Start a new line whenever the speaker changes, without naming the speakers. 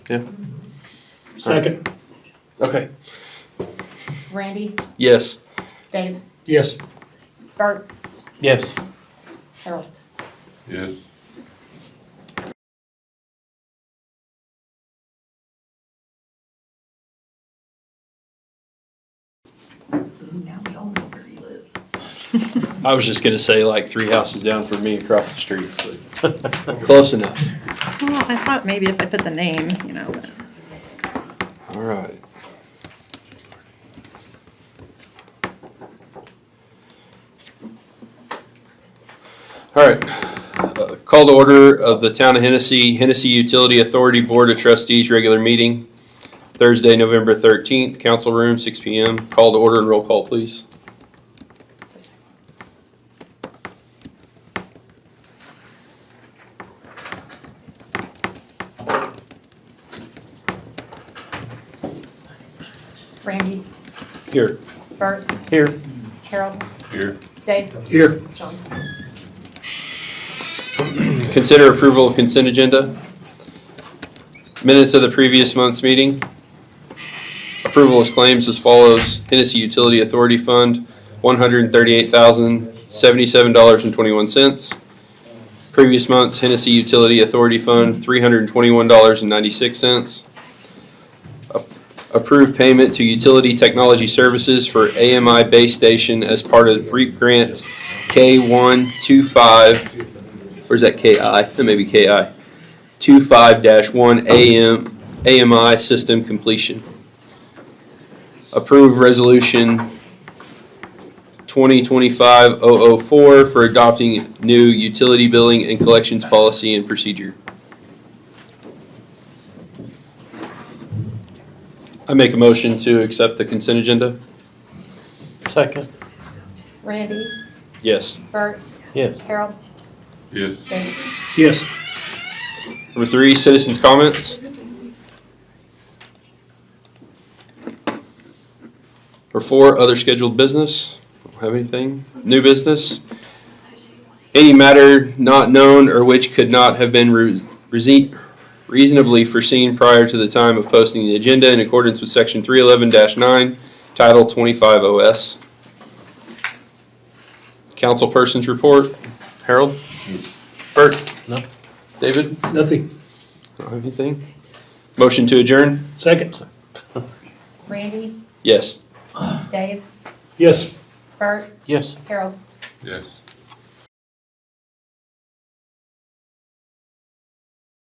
Yeah.
Second.
Okay.
Randy,
Yes.
Dave,
Yes.
Bert,
Yes.
Harold.
Yes.
Now we all know where he lives.
I was just gonna say like three houses down from me across the street, but close enough.
Well, I thought maybe if I put the name, you know, but
All right. All right. Uh, Call to order of the Town of Hennessy, Hennessy Utility Authority Board of Trustees, regular meeting, Thursday, November 13th, council room, 6 PM. Call to order and roll call, please.
Randy,
Here.
Bert,
Here.
Harold,
Here.
Dave,
Here.
John.
Consider approval of consent agenda. Minutes of the previous month's meeting. Approval of claims as follows. Hennessy Utility Authority Fund, $138,077.21. Previous month's Hennessy Utility Authority Fund, $321.96. A- Approved payment to Utility Technology Services for AMI Base Station as part of REAP Grant K125 Where's that KI? That may be KI. Two five dash one AM, AMI system completion. Approve resolution twenty twenty-five oh oh four for adopting new utility billing and collections policy and procedure. I make a motion to accept the consent agenda?
Second,
Randy,
Yes.
Bert,
yes.
Harold,
Yes.
Dave.
Yes.
Number three, citizens' comments. Number four, other scheduled business. Don't have anything. New business. Any matter not known or which could not have been re- rese- reasonably foreseen prior to the time of posting the agenda in accordance with section three eleven nine, title twenty-five OS. Councilperson's report. Harold? Bert?
No.
David?
Nothing.
Don't have anything. Motion to adjourn?
Second.
Randy,
Yes.
Dave,
Yes.
Bert,
Yes.
Harold.
Yes.